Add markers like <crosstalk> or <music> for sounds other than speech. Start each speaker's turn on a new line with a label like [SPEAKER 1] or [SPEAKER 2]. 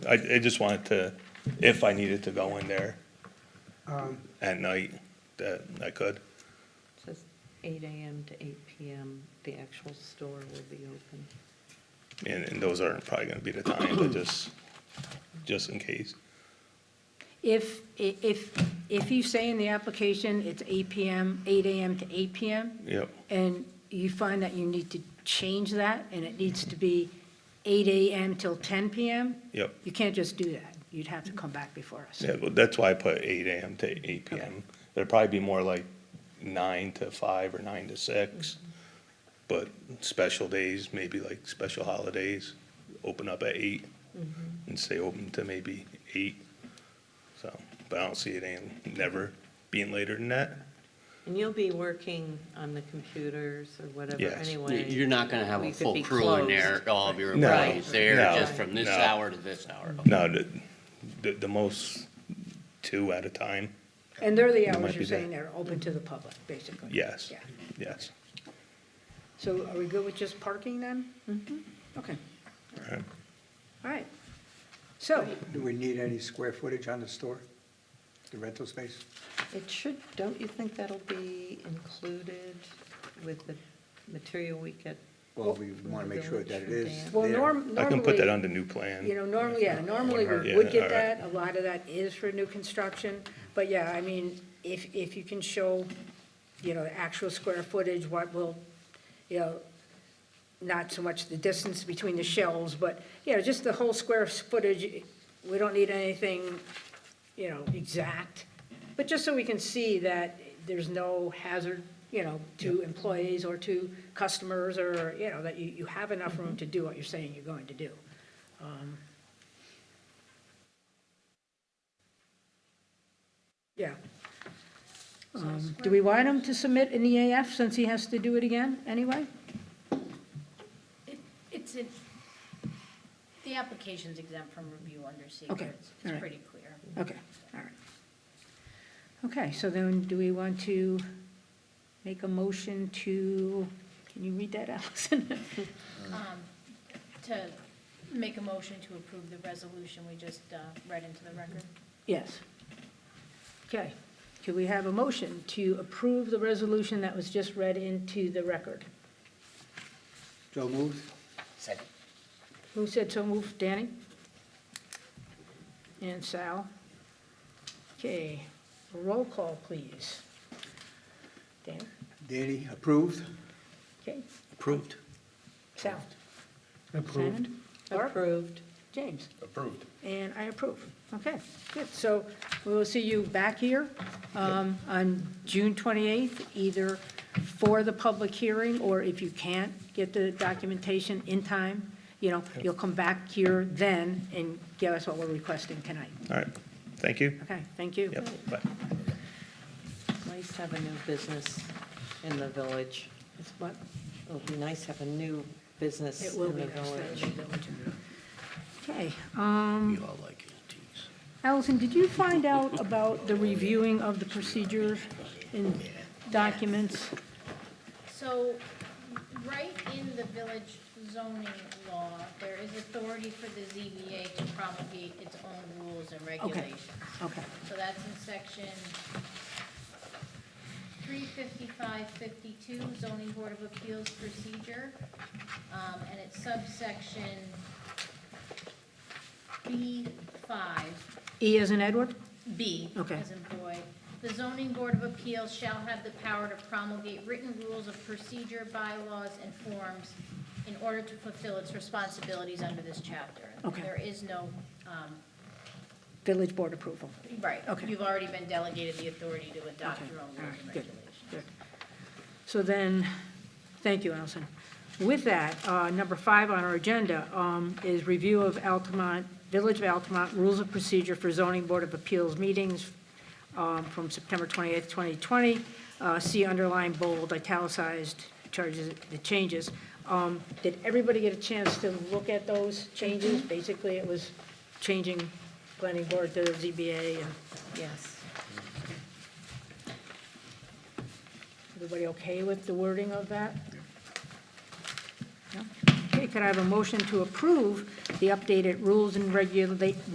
[SPEAKER 1] I, I just wanted to, if I needed to go in there at night, that I could.
[SPEAKER 2] Says eight AM to eight PM, the actual store will be open.
[SPEAKER 1] And, and those aren't probably gonna be the time, but just, just in case.
[SPEAKER 3] If, i- if, if you say in the application, it's 8 PM, 8 AM to 8 PM,
[SPEAKER 1] Yep,
[SPEAKER 3] and you find that you need to change that, and it needs to be 8 AM till 10 PM,
[SPEAKER 1] yep.
[SPEAKER 3] you can't just do that. You'd have to come back before us.
[SPEAKER 1] Yeah, but that's why I put eight AM to eight PM. It'd probably be more like nine to five or nine to six. But special days, maybe like special holidays, open up at eight and stay open to maybe eight. So, but I don't see it in, never being later than that.
[SPEAKER 2] And you'll be working on the computers or whatever
[SPEAKER 1] Yes.
[SPEAKER 2] anyway.
[SPEAKER 4] You're not gonna have
[SPEAKER 2] We
[SPEAKER 4] a
[SPEAKER 2] could be
[SPEAKER 4] full crew in there,
[SPEAKER 2] closed.
[SPEAKER 4] all of your
[SPEAKER 1] No,
[SPEAKER 4] employees there,
[SPEAKER 1] no,
[SPEAKER 4] just from this
[SPEAKER 1] no.
[SPEAKER 4] hour to this hour.
[SPEAKER 1] No, the, the, the most two at a time,
[SPEAKER 3] And they're the
[SPEAKER 1] It might
[SPEAKER 3] hours
[SPEAKER 1] be
[SPEAKER 3] you're
[SPEAKER 1] there.
[SPEAKER 3] saying they're open to the public, basically?
[SPEAKER 1] yes,
[SPEAKER 3] Yeah.
[SPEAKER 1] yes.
[SPEAKER 3] So are we good with just parking then? Mm-hmm. Okay,
[SPEAKER 1] Alright.
[SPEAKER 3] all right. So,
[SPEAKER 5] Do we need any square footage on the store, the rental space?
[SPEAKER 2] It should, don't you think that'll be included with the material we get?
[SPEAKER 5] Well, we want to make sure that it is
[SPEAKER 3] well,
[SPEAKER 5] there.
[SPEAKER 3] norm, normally.
[SPEAKER 1] I can put that on the new plan.
[SPEAKER 3] You know, normally, yeah, normally we
[SPEAKER 1] hurt.
[SPEAKER 3] would
[SPEAKER 1] Yeah,
[SPEAKER 3] get
[SPEAKER 1] all right.
[SPEAKER 3] that, a lot of that is for new construction, but yeah, I mean, if, if you can show, you know, the actual square footage, what will, you know, not so much the distance between the shelves, but, you know, just the whole square footage, we don't need anything, you know, exact, but just so we can see that there's no hazard, you know, to employees or to customers, or, you know, that you, you have enough room to do what you're saying you're going to do. Yeah. Um, Do we want him to submit an EAF since he has to do it again anyway?
[SPEAKER 6] It- It's, in- the application's exempt from review under
[SPEAKER 3] Okay,
[SPEAKER 6] secrets.
[SPEAKER 3] all
[SPEAKER 6] It's
[SPEAKER 3] right.
[SPEAKER 6] pretty clear.
[SPEAKER 3] Okay, all right. Okay, so then do we want to make a motion to, can you read that, <laughs> Allison?
[SPEAKER 6] Um, To make a motion to approve the resolution we just uh, read into the record.
[SPEAKER 3] Yes. Okay, do we have a motion to approve the resolution that was just read into the record?
[SPEAKER 5] Joe moves?
[SPEAKER 4] Second.
[SPEAKER 3] Who said so moved? Danny? And Sal? Okay, roll call, please. Dan?
[SPEAKER 5] Danny, approved?
[SPEAKER 3] Okay,
[SPEAKER 4] Approved.
[SPEAKER 3] Sal? Approved. Barb?
[SPEAKER 2] Approved.
[SPEAKER 3] James? Approved. And I approve. Okay, good. So we will see you back here um, on June 28th, either for the public hearing, or if you can't get the documentation in time, you know, you'll come back here then and give us what we're requesting tonight.
[SPEAKER 1] Alright, thank you.
[SPEAKER 3] Okay, thank you.
[SPEAKER 1] Yep, bye.
[SPEAKER 2] Nice to have a new business in the village. It's what, it'll be nice to have a new business
[SPEAKER 3] It will
[SPEAKER 2] in
[SPEAKER 3] be
[SPEAKER 2] the
[SPEAKER 3] nice to have
[SPEAKER 2] village.
[SPEAKER 3] the village. Okay, um,
[SPEAKER 4] We all like antiques.
[SPEAKER 3] Allison, did you find out about the reviewing of the procedures in documents?
[SPEAKER 6] So, right in the village zoning law, there is authority for the ZBA to promulgate its own rules and regulations.
[SPEAKER 3] Okay,
[SPEAKER 6] So that's in section three fifty-five fifty-two zoning board of appeals procedure. Um, and it's subsection B five,
[SPEAKER 3] E as in Edward?
[SPEAKER 6] B
[SPEAKER 3] Okay.
[SPEAKER 6] as in boy. The zoning board of appeals shall have the power to promulgate written rules of procedure, bylaws, and forms in order to fulfill its responsibilities under this chapter.
[SPEAKER 3] Okay.
[SPEAKER 6] There is no, um,
[SPEAKER 3] Village board approval.
[SPEAKER 6] right.
[SPEAKER 3] Okay.
[SPEAKER 6] You've already been delegated the authority to adopt
[SPEAKER 3] Okay,
[SPEAKER 6] your own
[SPEAKER 3] all
[SPEAKER 6] rules
[SPEAKER 3] right,
[SPEAKER 6] and
[SPEAKER 3] good,
[SPEAKER 6] regulations.
[SPEAKER 3] good. So then, thank you, Allison. With that, uh, number five on our agenda um, is review of Altamont, Village of Altamont Rules of Procedure for Zoning Board of Appeals Meetings um, from September 28th, 2020. Uh, See underlined, bold, italicized, charges, the changes. Um, Did everybody get a chance to look at those changes? Basically, it was changing planning board to ZBA, and
[SPEAKER 2] Yes.
[SPEAKER 3] everybody okay with the wording of that? No? Okay, could I have a motion to approve the updated rules and regula-